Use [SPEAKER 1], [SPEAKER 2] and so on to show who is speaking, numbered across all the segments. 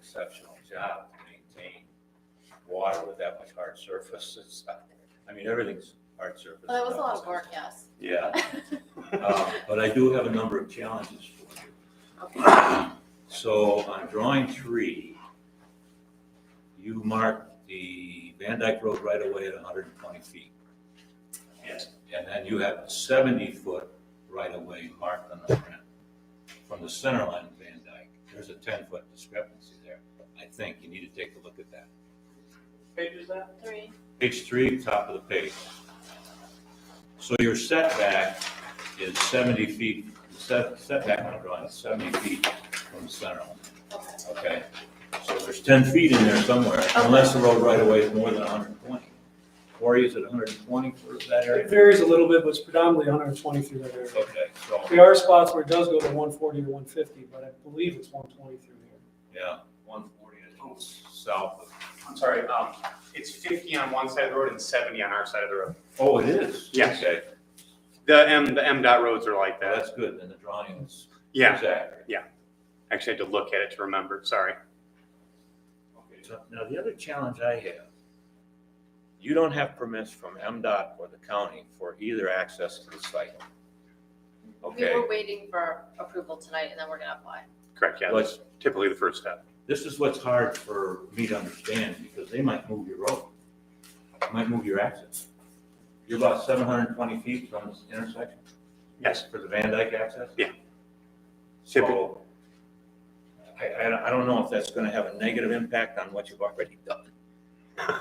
[SPEAKER 1] exceptional job to maintain water with that much hard surface. It's, I mean, everything's hard surface.
[SPEAKER 2] Well, that was a lot of work, yes.
[SPEAKER 1] Yeah, uh, but I do have a number of challenges for you.
[SPEAKER 2] Okay.
[SPEAKER 1] So on drawing three, you marked the Van Dyke Road right away at hundred and twenty feet.
[SPEAKER 3] Yes.
[SPEAKER 1] And then you have seventy foot right away marked on the plan. From the center line of Van Dyke, there's a ten foot discrepancy there. I think you need to take a look at that.
[SPEAKER 3] Page is that?
[SPEAKER 2] Three,
[SPEAKER 1] Page three, top of the page. So your setback is seventy feet, the set- setback on the drawing is seventy feet from the center line.
[SPEAKER 2] okay.
[SPEAKER 1] Okay, so there's ten feet in there somewhere, unless the road right away is more than hundred and twenty. Corey, is it hundred and twenty for that
[SPEAKER 4] It
[SPEAKER 1] area?
[SPEAKER 4] varies a little bit, but it's predominantly 120 through that area.
[SPEAKER 1] Okay, so,
[SPEAKER 4] There are spots where it does go to 140 or 150, but I believe it's 120 through here.
[SPEAKER 1] yeah, one forty, it's south of,
[SPEAKER 3] I'm sorry, um, it's fifty on one side of the road and seventy on our side of the road.
[SPEAKER 1] oh, it is?
[SPEAKER 3] Yeah.
[SPEAKER 1] Okay,
[SPEAKER 3] The M, the M dot roads are like
[SPEAKER 1] well,
[SPEAKER 3] that.
[SPEAKER 1] that's good, then the drawing is.
[SPEAKER 3] Yeah,
[SPEAKER 1] is accurate.
[SPEAKER 3] actually had to look at it to remember, sorry.
[SPEAKER 1] Okay, so Now, the other challenge I have, you don't have permits from MDOT or the county for either access to the site.
[SPEAKER 2] We
[SPEAKER 1] Okay,
[SPEAKER 2] were waiting for approval tonight and then we're gonna apply.
[SPEAKER 3] Correct, yeah,
[SPEAKER 1] what's,
[SPEAKER 3] that's typically the first step.
[SPEAKER 1] this is what's hard for me to understand, because they might move your road, might move your access. You're about seven hundred and twenty feet from this intersection?
[SPEAKER 3] Yes.
[SPEAKER 1] For the Van Dyke access?
[SPEAKER 3] Yeah.
[SPEAKER 1] So, I, I, don't- I don't know if that's gonna have a negative impact on what you've already done,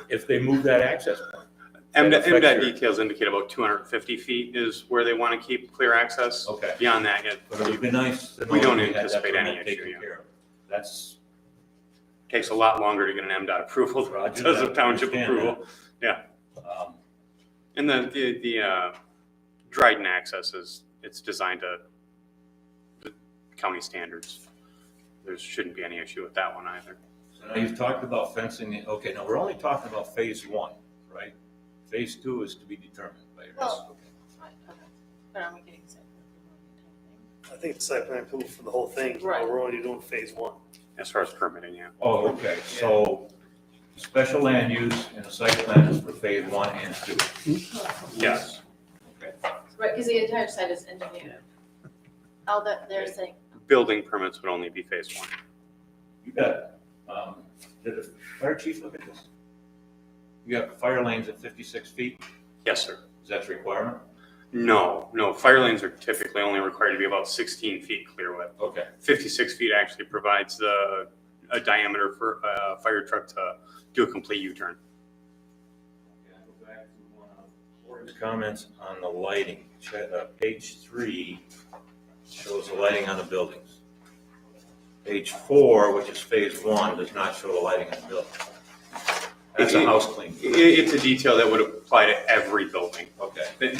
[SPEAKER 1] if they move that access point.
[SPEAKER 3] M,
[SPEAKER 1] That affects
[SPEAKER 3] dot
[SPEAKER 1] your-
[SPEAKER 3] details indicate about two hundred and fifty feet is where they want to keep clear access.
[SPEAKER 1] Okay.
[SPEAKER 3] Beyond that,
[SPEAKER 1] But it would
[SPEAKER 3] it
[SPEAKER 1] be nice to know.
[SPEAKER 3] We don't
[SPEAKER 1] that had that
[SPEAKER 3] anticipate any
[SPEAKER 1] permit
[SPEAKER 3] issue,
[SPEAKER 1] taken
[SPEAKER 3] yeah.
[SPEAKER 1] care of. That's.
[SPEAKER 3] takes a lot longer to get an M dot approval than it
[SPEAKER 1] Roger
[SPEAKER 3] does a
[SPEAKER 1] that,
[SPEAKER 3] township
[SPEAKER 1] understand
[SPEAKER 3] approval.
[SPEAKER 1] that. Um,
[SPEAKER 3] And the, the, the, uh, Dryden access is, it's designed to the county standards. There shouldn't be any issue with that one either.
[SPEAKER 1] So now you've talked about fencing, it- okay, now we're only talking about phase one, right? Phase two is to be determined later.
[SPEAKER 2] Well- Right, okay. But I'm getting sick.
[SPEAKER 5] I think it's site plan approval for the whole thing,
[SPEAKER 2] Right.
[SPEAKER 5] but we're only doing phase one.
[SPEAKER 3] As far as permitting, yeah.
[SPEAKER 1] Oh, okay, so special land use and a site plan is for phase one and two.
[SPEAKER 3] Yes.
[SPEAKER 2] Right, because the entire site is engineered. All Oh, that they're saying,
[SPEAKER 3] Building permits would only be phase one.
[SPEAKER 1] You got, um, did the fire chief look at this? You got fire lanes at fifty-six feet,
[SPEAKER 3] Yes, sir.
[SPEAKER 1] is that the requirement?
[SPEAKER 3] No, no, fire lanes are typically only required to be about sixteen feet clear width.
[SPEAKER 1] Okay,
[SPEAKER 3] Fifty-six feet actually provides the, a diameter for a fire truck to do a complete U-turn.
[SPEAKER 1] Yeah, go back to one of Cory's Comments on the lighting, Ch- uh, page three shows the lighting on the buildings. Page four, which is phase one, does not show the lighting on the building. That's a house clean,
[SPEAKER 3] I it's a detail that would apply to every building,
[SPEAKER 1] okay.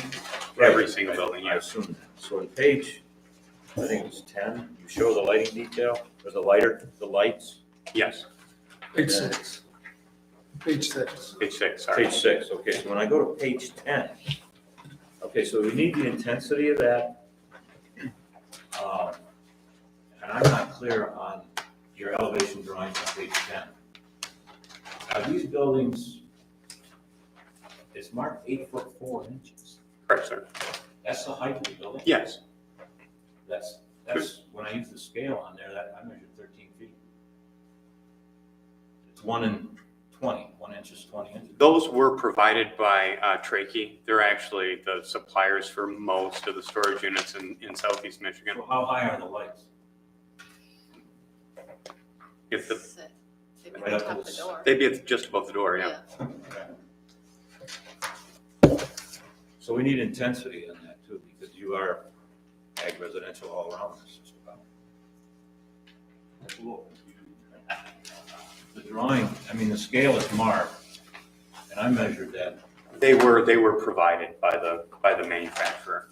[SPEAKER 3] every single building,
[SPEAKER 1] I
[SPEAKER 3] yes.
[SPEAKER 1] assume that. So in page, I think it's ten, you show the lighting detail, or the lighter, the lights.
[SPEAKER 3] Yes.
[SPEAKER 4] Page
[SPEAKER 1] And then-
[SPEAKER 4] six. Page six.
[SPEAKER 3] Page six, sorry.
[SPEAKER 1] Page six, okay, so when I go to page ten, okay, so we need the intensity of that. Um, And I'm not clear on your elevation drawings on page ten. Are these buildings, it's marked eight foot four inches,
[SPEAKER 3] Correct, sir.
[SPEAKER 1] that's the height of the building?
[SPEAKER 3] Yes,
[SPEAKER 1] That's, that's, when I use the scale on there, that, I measured thirteen feet. It's one and twenty. One inch is twenty inches.
[SPEAKER 3] those were provided by uh, Trakey. They're actually the suppliers for most of the storage units in, in southeast Michigan.
[SPEAKER 1] So how high are the lights?
[SPEAKER 3] If the,
[SPEAKER 2] sick. They
[SPEAKER 1] Right up
[SPEAKER 2] would tap
[SPEAKER 1] to
[SPEAKER 2] the
[SPEAKER 1] the-
[SPEAKER 2] door.
[SPEAKER 3] they'd be at- just above the door, yeah.
[SPEAKER 1] So we need intensity on that too, because you are ag residential all around this just about. That's a little confusing. The drawing, I mean, the scale is marked, and I measured that.
[SPEAKER 3] They were, they were provided by the, by the manufacturer.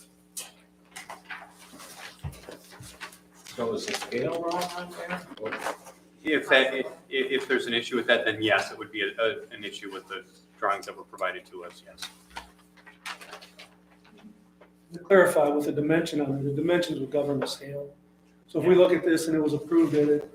[SPEAKER 1] So is the scale wrong on there? Or-
[SPEAKER 3] If that, if, if there's an issue with that, then yes, it would be a- a- an issue with the drawings that were provided to us, yes.
[SPEAKER 4] To clarify with the dimension on it, the dimensions would govern the scale. So if we look at this and it was approved at